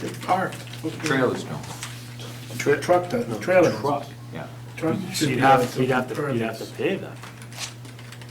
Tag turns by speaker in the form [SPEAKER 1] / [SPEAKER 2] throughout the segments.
[SPEAKER 1] They're parked.
[SPEAKER 2] Trailers don't.
[SPEAKER 1] Truck, the trailer.
[SPEAKER 2] Truck, yeah.
[SPEAKER 1] Truck should
[SPEAKER 3] You'd
[SPEAKER 1] be on
[SPEAKER 3] have, you'd
[SPEAKER 1] something
[SPEAKER 3] have to, you'd have to
[SPEAKER 1] pervious.
[SPEAKER 3] pay them.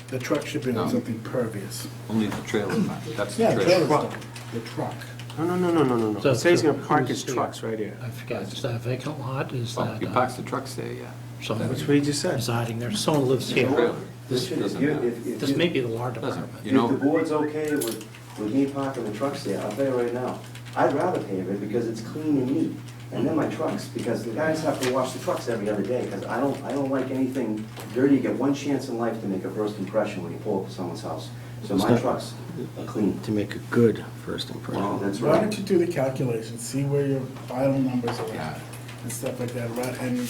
[SPEAKER 1] The truck should be on
[SPEAKER 2] No.
[SPEAKER 1] something pervious.
[SPEAKER 2] Only the trailer, not- that's the
[SPEAKER 1] Yeah, the
[SPEAKER 2] trailer.
[SPEAKER 1] trailer's done. The truck.
[SPEAKER 4] No, no, no, no, no, no, no.
[SPEAKER 5] So
[SPEAKER 4] The place he's gonna
[SPEAKER 5] who's
[SPEAKER 4] park his
[SPEAKER 5] here?
[SPEAKER 4] trucks right here.
[SPEAKER 5] I forgot, is that a vacant lot, is
[SPEAKER 2] Well,
[SPEAKER 5] that?
[SPEAKER 2] he
[SPEAKER 5] uh,
[SPEAKER 2] parks the trucks there, yeah.
[SPEAKER 5] someone
[SPEAKER 4] That's what he just said.
[SPEAKER 5] Residing there, someone lives here.
[SPEAKER 2] Trailer. This doesn't
[SPEAKER 6] You-
[SPEAKER 2] matter.
[SPEAKER 6] if- if
[SPEAKER 5] This
[SPEAKER 6] you-
[SPEAKER 5] may be the law department.
[SPEAKER 2] Doesn't, you
[SPEAKER 6] If
[SPEAKER 2] know.
[SPEAKER 6] the board's okay with, with me parking the trucks there, I'll tell you right now, I'd rather pave it because it's clean and neat. And then my trucks, because the guys have to wash the trucks every other day, because I don't, I don't like anything dirty. You get one chance in life to make a first impression when you pull up to someone's house. So my trucks are clean.
[SPEAKER 4] To make a good first
[SPEAKER 6] Well,
[SPEAKER 4] impression.
[SPEAKER 6] that's
[SPEAKER 1] Why
[SPEAKER 6] right.
[SPEAKER 1] don't you do the calculations, see where your final numbers are
[SPEAKER 2] Yeah.
[SPEAKER 1] at and stuff like that, right? And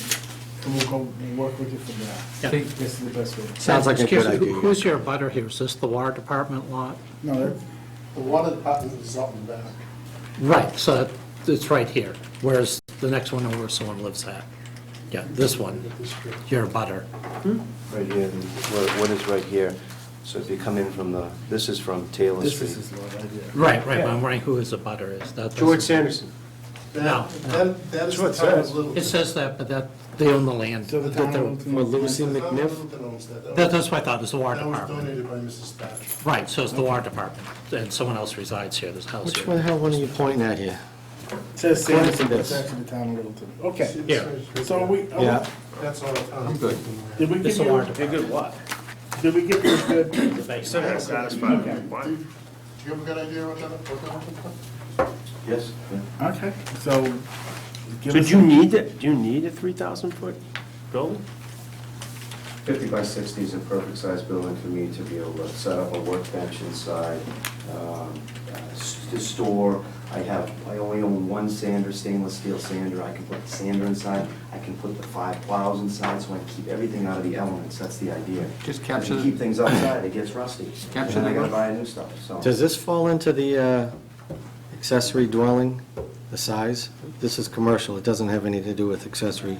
[SPEAKER 1] and we'll go work with you from there.
[SPEAKER 5] Yeah.
[SPEAKER 1] Think This is the best way.
[SPEAKER 4] Sounds like a
[SPEAKER 5] Excuse
[SPEAKER 4] good
[SPEAKER 5] me, who-
[SPEAKER 4] idea.
[SPEAKER 5] Who's your butter here, is this the water department lot?
[SPEAKER 1] No, that-
[SPEAKER 7] The water department is up and back.
[SPEAKER 5] Right, so that- it's right here, whereas the next one over someone lives at. Yeah, this one, your butter.
[SPEAKER 6] Right here, and what- what is right here? So if you come in from the, this is from Taylor
[SPEAKER 1] this is
[SPEAKER 6] Street.
[SPEAKER 1] his lot idea.
[SPEAKER 5] Right, right, but I'm wondering who is the butter is, that.
[SPEAKER 4] George Sanderson.
[SPEAKER 5] No, no.
[SPEAKER 7] That, that is
[SPEAKER 4] That's what
[SPEAKER 7] the
[SPEAKER 4] it
[SPEAKER 7] town
[SPEAKER 4] says.
[SPEAKER 7] of Littleton.
[SPEAKER 5] It says that, but that, they own the land.
[SPEAKER 1] So the
[SPEAKER 5] That they're-
[SPEAKER 1] town.
[SPEAKER 4] For Lucy
[SPEAKER 7] The town of
[SPEAKER 4] McNiff.
[SPEAKER 7] Littleton owns that.
[SPEAKER 5] that- That's what I thought, it's the water
[SPEAKER 7] That was
[SPEAKER 5] department.
[SPEAKER 7] donated by Mrs. Thatcher.
[SPEAKER 5] Right, so it's the water department, and someone else resides here, this house
[SPEAKER 4] Which one, the
[SPEAKER 5] here.
[SPEAKER 4] hell, one are you pointing at here?
[SPEAKER 1] It Says
[SPEAKER 4] According to
[SPEAKER 1] Sanderson, but it's
[SPEAKER 4] this.
[SPEAKER 1] actually the town of Littleton.
[SPEAKER 7] See,
[SPEAKER 1] Okay,
[SPEAKER 7] this
[SPEAKER 5] Yeah.
[SPEAKER 7] is right
[SPEAKER 1] so
[SPEAKER 7] there.
[SPEAKER 1] we. oh,
[SPEAKER 4] Yeah.
[SPEAKER 7] That's all the town.
[SPEAKER 2] I'm good.
[SPEAKER 1] Did we give
[SPEAKER 5] It's the
[SPEAKER 1] you,
[SPEAKER 5] water department.
[SPEAKER 1] did we give you a good?
[SPEAKER 7] Do you have a good idea what that, what that was?
[SPEAKER 6] Yes? yeah.
[SPEAKER 1] Okay, so. give
[SPEAKER 4] So
[SPEAKER 1] us
[SPEAKER 4] do you
[SPEAKER 1] some-
[SPEAKER 4] need that, do you need a three thousand foot building?
[SPEAKER 6] 50 by 60 is a perfect size building for me to be able to set up a workbench inside, um, uh, s- to store. I have, I only own one sander, stainless steel sander. I can put the sander inside. I can put the five plows inside, so I can keep everything out of the elements. That's the idea.
[SPEAKER 2] Just
[SPEAKER 6] If you
[SPEAKER 2] capture the-
[SPEAKER 6] keep things outside, it gets rusty.
[SPEAKER 2] Capture
[SPEAKER 6] And
[SPEAKER 2] the
[SPEAKER 6] I gotta
[SPEAKER 2] rust.
[SPEAKER 6] buy new stuff, so.
[SPEAKER 4] Does this fall into the uh, accessory dwelling, the size? This is commercial, it doesn't have anything to do with accessory,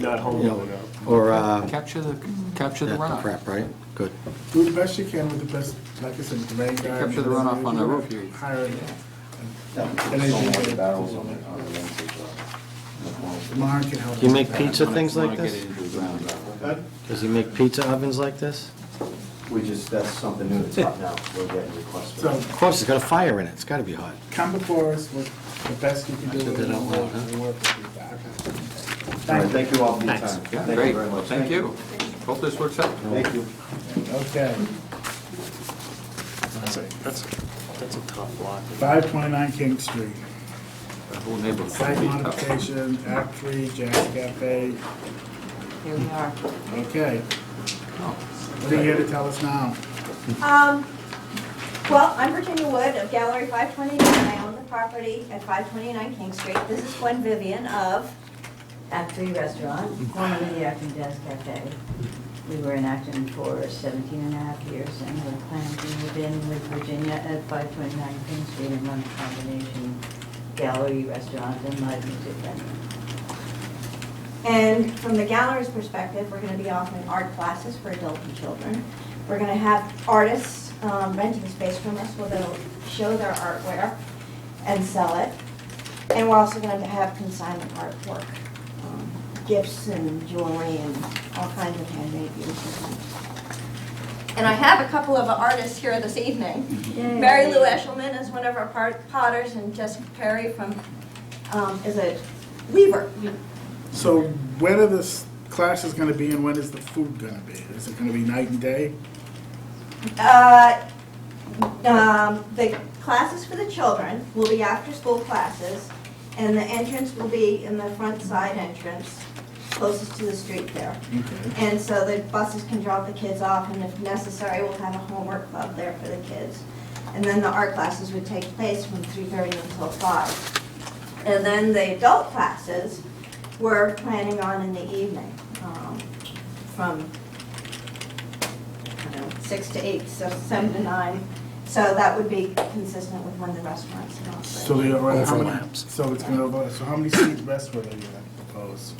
[SPEAKER 3] Not
[SPEAKER 4] you
[SPEAKER 3] home.
[SPEAKER 4] know, or, uh, that
[SPEAKER 2] Capture the, capture the runoff.
[SPEAKER 4] crap, right? Good.
[SPEAKER 1] Do the best you can with the best, like I said, the rain guard.
[SPEAKER 2] Capture the runoff on the roof here.
[SPEAKER 1] Hire it.
[SPEAKER 6] Yeah,
[SPEAKER 1] And then
[SPEAKER 6] so
[SPEAKER 1] you-
[SPEAKER 6] many barrels on the, on the lens as well.
[SPEAKER 1] Mark can help.
[SPEAKER 4] Do you
[SPEAKER 1] us
[SPEAKER 4] make
[SPEAKER 1] with that.
[SPEAKER 4] pizza
[SPEAKER 2] Wanna-
[SPEAKER 4] things like
[SPEAKER 2] wanna get
[SPEAKER 4] this?
[SPEAKER 2] it into the ground.
[SPEAKER 6] uh,
[SPEAKER 4] Does he make pizza ovens like this?
[SPEAKER 6] We just, that's something new that's up now. We're getting requests. for
[SPEAKER 1] So
[SPEAKER 6] that.
[SPEAKER 4] Of course, it's got a fire in it, it's gotta be hot.
[SPEAKER 1] come before us with the best you can do.
[SPEAKER 4] said
[SPEAKER 1] with
[SPEAKER 4] that
[SPEAKER 1] it,
[SPEAKER 4] out loud, huh?
[SPEAKER 1] we'll work with you back.
[SPEAKER 6] All right, thank you all for your
[SPEAKER 5] Thanks.
[SPEAKER 6] time.
[SPEAKER 2] Yeah,
[SPEAKER 6] Thank you
[SPEAKER 2] great,
[SPEAKER 6] very much.
[SPEAKER 2] thank you. Hope this works out.
[SPEAKER 6] Thank you.
[SPEAKER 1] Okay,
[SPEAKER 3] That's a, that's a- that's a tough lot.
[SPEAKER 1] five twenty-nine King Street.
[SPEAKER 2] The whole neighborhood.
[SPEAKER 1] Site modification, Act Three, Jazz Cafe.
[SPEAKER 8] Here we are.
[SPEAKER 1] Okay, what are you here to tell us now?
[SPEAKER 9] Um, well, I'm Virginia Wood of Gallery 529. I own the property at 529 King Street. This is Gwen Vivian of
[SPEAKER 8] Actory Restaurant, formerly the Acton Jazz Cafe. We were in Acton for 17 and a half years, and we're planning to move in with Virginia at 529 King Street and run a combination gallery, restaurant, and live music venue.
[SPEAKER 9] And from the gallery's perspective, we're going to be offering art classes for adults and children. We're going to have artists um, renting space from us where they'll show their artwork and sell it. And we're also going to have consignment artwork, um, gifts and jewelry and all kinds of handmade beautiful things. And I have a couple of artists here this evening. Mary Lou Eshelman is one of our pot- potters and Jessica Perry from, um, is a weaver.
[SPEAKER 1] So when are this classes gonna be and when is the food gonna be? Is it gonna be night and day?
[SPEAKER 9] Uh, um, The classes for the children will be after-school classes, and the entrance will be in the front side entrance, closest to the street there.
[SPEAKER 1] Okay.
[SPEAKER 9] And so the buses can drop the kids off, and if necessary, we'll have a homework club there for the kids. And then the art classes would take place from 3:30 until five. And then the adult classes, we're planning on in the evening, um, from you know, six to eight, so seven to nine. So that would be consistent with when the restaurants are
[SPEAKER 1] So
[SPEAKER 9] operating.
[SPEAKER 1] they are, how many,
[SPEAKER 5] Overlaps.
[SPEAKER 1] so it's gonna, overlap. so how many seat restaurant are you gonna propose?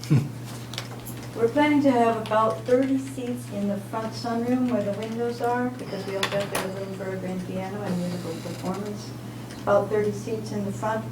[SPEAKER 8] We're planning to have about 30 seats in the front sunroom where the windows are, because we also have to have room for a grand piano and musical performance. About 30 seats in the front,